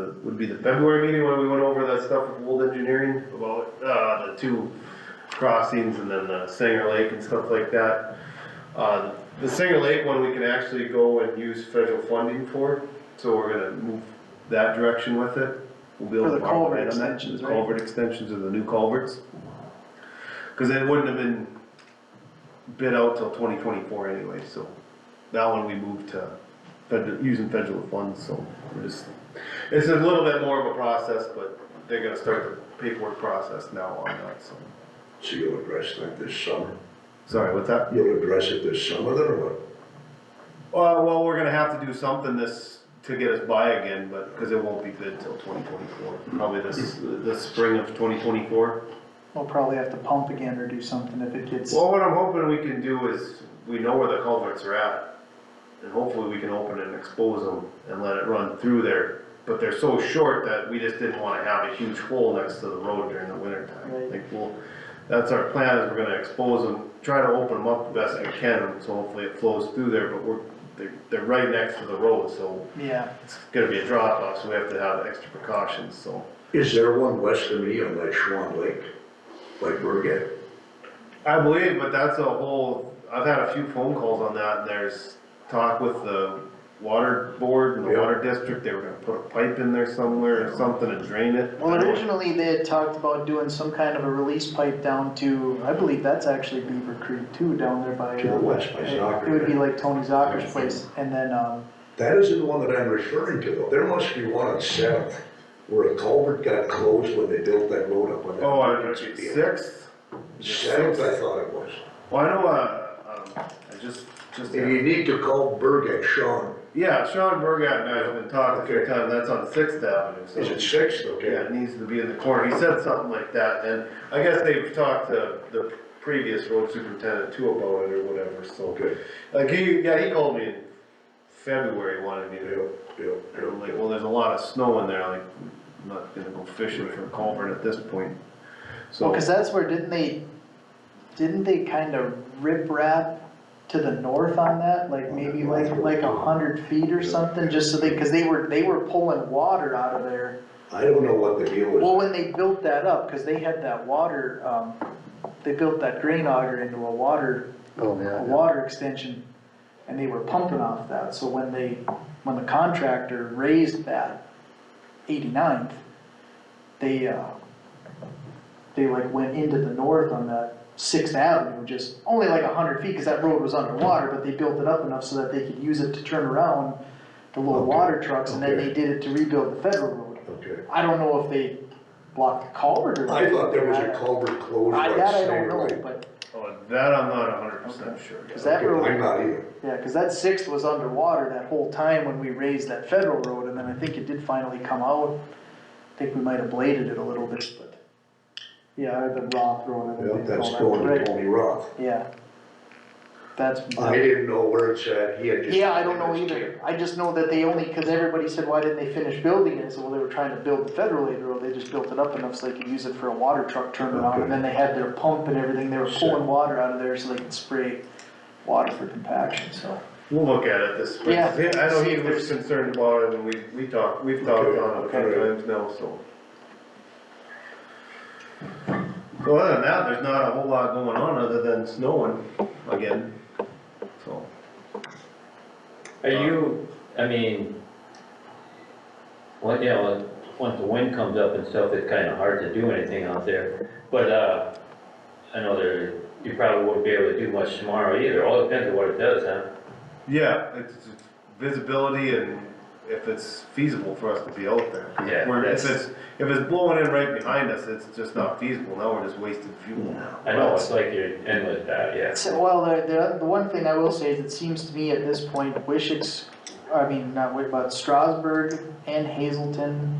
would be the February meeting when we went over that stuff with Wold Engineering about, uh, the two crossings and then the Sanger Lake and stuff like that. Uh, the Sanger Lake one, we can actually go and use federal funding for, so we're gonna move that direction with it. We'll be able For the to borrow culvert money on that, extensions, the right? culvert extensions of the new culverts. Cause it wouldn't have been bid out till twenty twenty-four anyway, so that one we moved to federal, using federal funds, so we're just, it's a little bit more of a process, but they're gonna start the paperwork process now on that, so. So you'll address that this summer? Sorry, what's that? You'll address it this summer then, or what? Well, Uh, well, we're gonna have to do something this, to get us by again, but, cause it won't be bid till twenty twenty-four, probably this, the spring of twenty twenty-four. We'll probably have to pump again or do something if it gets, Well, what I'm hoping we can do is, we know where the culverts are at, and hopefully we can open it and expose them and let it run through there. But they're so short that we just didn't wanna have a huge hole next to the road during the winter time. Right. Like, well, that's our plan, is we're gonna expose them, try to open them up the best we can, so hopefully it flows through there, but we're, they're, they're right next to the road, so yeah, it's gonna be a drop off, so we have to have extra precautions, so. Is there one west of me on that Schwann Lake, like Burgett? I believe, but that's a whole, I've had a few phone calls on that, and there's talk with the water board and the Yeah. water district, they were gonna put a pipe in there somewhere or something to drain it. well, originally they had talked about doing some kind of a release pipe down to, I believe that's actually Beaver Creek too, down there by. To the uh, west by Zocker. It would be like Tony Zocker's place, and then, um, That isn't the one that I'm referring to, though. There must be one on Seventh, where a culvert got closed when they built that road up on that. Oh, I, sixth, Seventh, I thought it was. well, I know, uh, um, I just, just, And you need to call Burgett, Sean. yeah, Sean Burgat and I have been talking a few times, that's on Sixth Avenue, so. Is it Sixth? Yeah, Okay. it needs to be in the corner, he said something like that, and I guess they've talked to the previous road superintendent too about it or whatever, so. Okay. Like he, yeah, he called me in February wanting me Yeah, to, yeah, and I'm yeah. like, well, there's a lot of snow in there, like, I'm not gonna go fishing for a culvert at this point. well, So, cause that's where, didn't they, didn't they kind of rip wrap to the north on that? Like maybe like, like a hundred feet or something, just so they, cause they were, they were pulling water out of there. I don't know what the deal was. Well, when they built that up, cause they had that water, um, they built that grain auger into a water, Oh, a yeah. water extension, and they were pumping off that, so when they, when the contractor raised that 89th, they, uh, they like went into the north on that Sixth Avenue, just only like a hundred feet, cause that road was underwater, but they built it up enough so that they could use it to turn around the little Okay, water trucks, and then okay. they did it to rebuild the federal road. Okay. I don't know if they blocked the culvert or. I thought there was I- a culvert closed I- on That I don't Sanger know, Lake. but, oh, that I'm not hundred percent sure. cause that Okay, I'm road, not either. yeah, cause that sixth was underwater that whole time when we raised that federal road, and then I think it did finally come out. I think we might have bladed it a little bit, but, yeah, or the rock throwing it. Yeah, that's going to Tony Roth. Yeah. That's. I didn't know where it's at, he had just. Yeah, I don't know either, I just know that they only, cause everybody said, why didn't they finish building it, I said, well, they were trying to build the federal aid road, they just built it up enough so they could use it for a water truck turnaround, and then they had their pump and everything, they were pulling water out of there so they could spray water for compaction, so. We'll look at it this spring, Yeah. Yeah, I know See he if was there's- concerned about it, and we, we talked, we've talked Okay, on it a few okay. times now, so. So other than that, there's not a whole lot going on other than snowing again, so. Are you, I mean, well, yeah, well, once the wind comes up and stuff, it's kinda hard to do anything out there, but, uh, I know there, you probably won't be able to do much tomorrow either, all depends on what it does, huh? Yeah, it's it's visibility and if it's feasible for us to be out there. 'Cause if Yeah, we're- If that's- it's, if it's blowing in right behind us, it's just not feasible, now we're just wasting fuel. I know, it's like you're in with that, yeah. So, well, the, the, the one thing I will say is it seems to me at this point, Wishick's, I mean, not Wish, but Strasburg and Hazelton,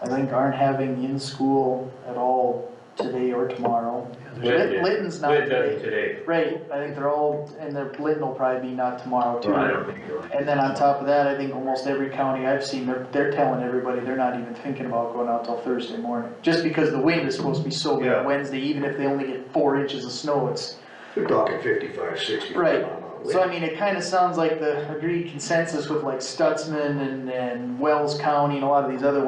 I think aren't having in-school at all today or tomorrow. Lit- Litton's not Lit today. does today, Right, I think they're all, and their Litton will probably be not tomorrow too. Well, I don't think you'll. And then on top of that, I think almost every county I've seen, they're, they're telling everybody they're not even thinking about going out till Thursday morning. Just because the wind is supposed to be so Yeah. bad Wednesday, even if they only get four inches of snow, it's, They're talking fifty-five, sixty. right. mile an hour So I wind. mean, it kinda sounds like the agreed consensus with like Stutzman and, and Wells County and a lot of these other